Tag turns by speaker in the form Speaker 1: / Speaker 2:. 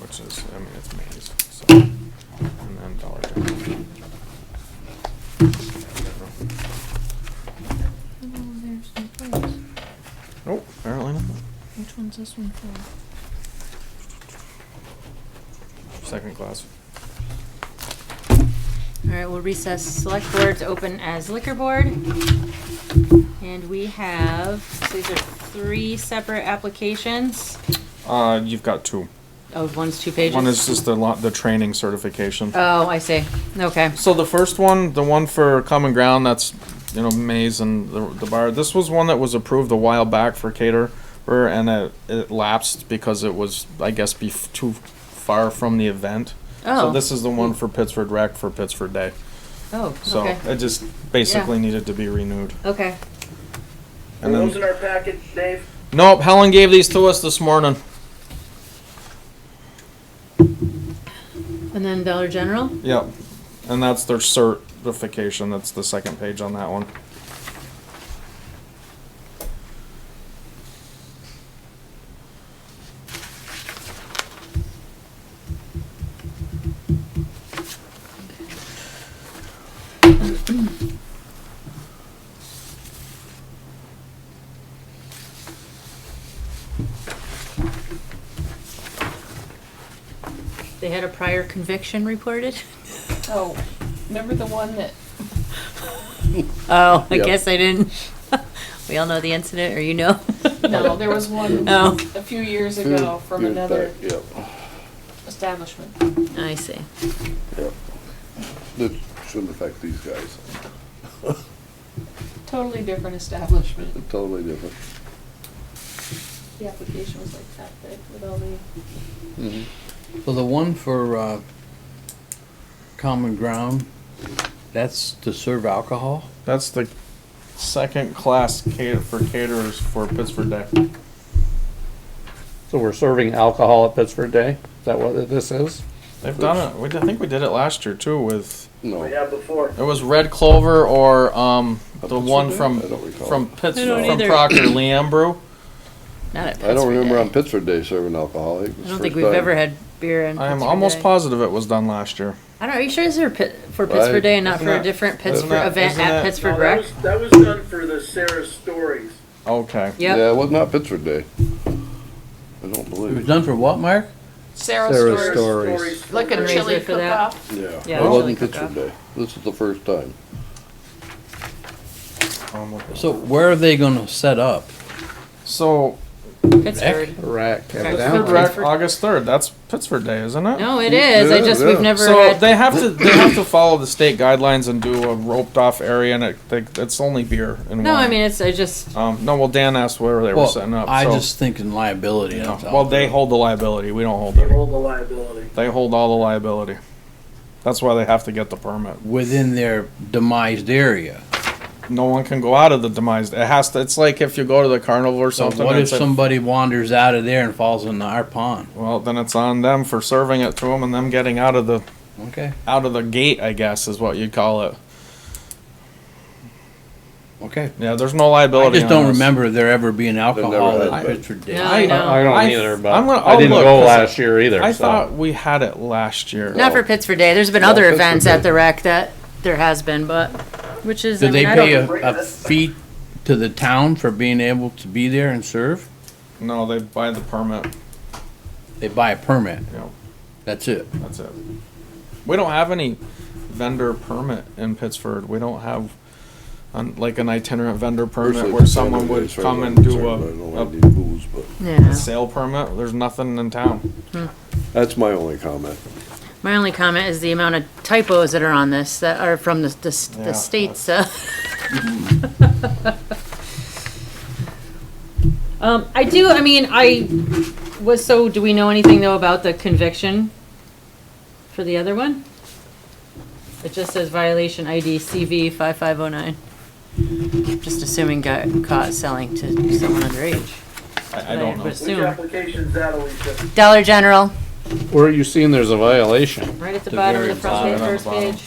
Speaker 1: Which is, I mean, it's Maze, so, and then Dollar General.
Speaker 2: Oh, there's no place.
Speaker 1: Nope, apparently not.
Speaker 2: Which one's this one for?
Speaker 1: Second class.
Speaker 3: All right, we'll recess select board to open as liquor board. And we have, these are three separate applications.
Speaker 1: Uh, you've got two.
Speaker 3: Oh, one's two pages.
Speaker 1: One is just the lot, the training certification.
Speaker 3: Oh, I see. Okay.
Speaker 1: So the first one, the one for Common Ground, that's, you know, Maze and the, the bar, this was one that was approved a while back for caterer, and it, it lapsed because it was, I guess, be too far from the event. So
Speaker 3: Oh.
Speaker 1: this is the one for Pittsford Rec for Pittsford Day.
Speaker 3: Oh,
Speaker 1: So
Speaker 3: okay.
Speaker 1: it just basically needed to be renewed.
Speaker 3: Okay.
Speaker 4: Are
Speaker 1: And then-
Speaker 4: those in our package, Dave?
Speaker 1: Nope, Helen gave these to us this morning.
Speaker 3: And then Dollar General?
Speaker 1: Yep. And that's their certification. That's the second page on that one.
Speaker 3: They had a prior conviction reported?
Speaker 5: Oh, remember the one that,
Speaker 3: Oh, I
Speaker 4: Yep.
Speaker 3: guess I didn't. We all know the incident, or you know?
Speaker 5: no, there was one
Speaker 3: Oh.
Speaker 5: a few years ago from another
Speaker 4: Yep,
Speaker 5: establishment.
Speaker 3: I see.
Speaker 4: yep. That shouldn't affect these guys.
Speaker 5: Totally different establishment.
Speaker 4: Totally different.
Speaker 5: The application was like that big with all the.
Speaker 6: Well, the one for uh, Common Ground, that's to serve alcohol?
Speaker 1: That's the second class cater for caterers for Pittsford Day.
Speaker 7: So we're serving alcohol at Pittsburgh Day? Is that what this is?
Speaker 1: They've done it. We, I think we did it last year too. With
Speaker 4: No. Yeah, before.
Speaker 1: it was Red Clover or um
Speaker 4: At
Speaker 1: the
Speaker 4: Pittsford
Speaker 1: one
Speaker 4: Day?
Speaker 1: from
Speaker 4: I don't recall.
Speaker 1: from Pitts
Speaker 3: I don't
Speaker 1: from
Speaker 3: either.
Speaker 1: Proctor Liam Brew.
Speaker 3: Not at Pittsburgh.
Speaker 4: I don't remember
Speaker 3: Day.
Speaker 4: on Pittsburgh Day serving alcohol. it was
Speaker 3: I don't
Speaker 4: the
Speaker 3: think
Speaker 4: first
Speaker 3: we've
Speaker 4: time.
Speaker 3: ever had beer in
Speaker 1: I am
Speaker 3: Pittsburgh
Speaker 1: almost
Speaker 3: Day.
Speaker 1: positive it was done last year.
Speaker 3: I don't know. Are you sure this is for Pit- for
Speaker 4: Well,
Speaker 3: Pittsburgh
Speaker 4: I-
Speaker 3: Day and not
Speaker 1: isn't
Speaker 3: for a
Speaker 1: that-
Speaker 3: different
Speaker 1: isn't
Speaker 3: Pittsburgh
Speaker 1: that-
Speaker 3: event
Speaker 1: isn't
Speaker 3: at
Speaker 1: that-
Speaker 3: Pittsburgh
Speaker 4: that
Speaker 3: Rec?
Speaker 4: was- That was done for the Sarah Stories.
Speaker 1: Okay.
Speaker 3: Yep.
Speaker 4: Yeah, it was not Pittsburgh Day. I don't
Speaker 6: It was
Speaker 4: believe it.
Speaker 6: done for what, Mark?
Speaker 5: Sarah's
Speaker 7: Sarah's
Speaker 5: Stores.
Speaker 7: Store.
Speaker 5: Like a
Speaker 3: Fundraiser
Speaker 5: chili
Speaker 3: for that.
Speaker 5: cook-off.
Speaker 3: Yeah,
Speaker 4: Yeah,
Speaker 3: it
Speaker 4: it
Speaker 3: was
Speaker 4: wasn't
Speaker 3: like uh, a cup.
Speaker 4: Pittsburgh Day. This is the first time.
Speaker 1: Um, okay.
Speaker 6: So where are they going to set up?
Speaker 1: So
Speaker 3: Pittsburgh.
Speaker 7: Rack.
Speaker 1: Pittsford Rec August third. That's Pittsford Day, isn't it?
Speaker 3: No, it is. I
Speaker 4: Yeah,
Speaker 3: just
Speaker 4: yeah.
Speaker 3: we've never
Speaker 1: So
Speaker 3: had.
Speaker 1: they have to they have to follow the state guidelines and do a roped off area, and it, they, it's only beer and
Speaker 3: no,
Speaker 1: wine.
Speaker 3: I mean it's I just
Speaker 1: Um, no, well, Dan asked where they were setting up.
Speaker 6: I
Speaker 1: so,
Speaker 6: just think in liability.
Speaker 1: you know,
Speaker 6: that's all.
Speaker 1: well, they hold the liability. We don't hold it.
Speaker 4: hold the liability.
Speaker 1: They hold all the liability. That's why they have to get the permit.
Speaker 6: Within their demised area.
Speaker 1: No one can go out of the demise. It has to. It's like if you go to the carnival or
Speaker 6: So
Speaker 1: something.
Speaker 6: what if
Speaker 1: it's a-
Speaker 6: somebody wanders out of there and falls into our pond?
Speaker 1: well, then it's on them for serving it to them and them getting out of the
Speaker 6: Okay,
Speaker 1: out of the gate. I guess is what you'd call it.
Speaker 6: okay.
Speaker 1: Yeah, there's no
Speaker 6: I
Speaker 1: liability.
Speaker 6: just
Speaker 1: on
Speaker 6: don't
Speaker 1: this.
Speaker 6: remember there ever being alcohol
Speaker 4: had
Speaker 6: at
Speaker 4: that.
Speaker 6: Pittsford Day.
Speaker 3: no, I know.
Speaker 7: I don't
Speaker 1: I-
Speaker 7: either, but
Speaker 1: I'm gonna-
Speaker 7: I
Speaker 1: I'll
Speaker 7: didn't
Speaker 1: look,
Speaker 7: go
Speaker 1: 'cause I-
Speaker 7: last year either.
Speaker 1: I
Speaker 7: so.
Speaker 1: thought we had it last year.
Speaker 3: not for Pittsburgh Day. There's been
Speaker 4: No,
Speaker 3: other
Speaker 4: Pittsburgh
Speaker 3: events
Speaker 4: Day.
Speaker 3: at the rec that there has been, but which is
Speaker 6: Do
Speaker 3: I
Speaker 6: they
Speaker 3: mean, I
Speaker 6: pay a,
Speaker 3: don't-
Speaker 6: a fee to the town for being able to be there and serve?
Speaker 1: No, they buy the permit.
Speaker 6: They buy a permit.
Speaker 1: Yeah.
Speaker 6: That's it.
Speaker 1: That's it. We don't have any vendor permit in Pittsford. We don't have um, like an itinerant vendor permit where someone would come and do a, a
Speaker 4: booze, but
Speaker 3: Yeah.
Speaker 1: sale permit. There's nothing in town.
Speaker 4: that's my only comment.
Speaker 3: My only comment is the amount of typos that are on this that are from the the, s-
Speaker 1: Yeah.
Speaker 3: the states. Uh, um, I do. I mean, I was so. Do we know anything though about the conviction for the other one? It just says violation ID CV five five zero nine. Just assuming got caught selling to someone underage.
Speaker 1: I, I don't
Speaker 3: would
Speaker 1: know.
Speaker 3: assume. Dollar General,
Speaker 7: Where are you seeing there's a violation?
Speaker 3: right at the
Speaker 6: The
Speaker 3: bottom of
Speaker 6: very
Speaker 3: the front
Speaker 1: bottom.
Speaker 3: page, first
Speaker 1: Bottom.
Speaker 3: page.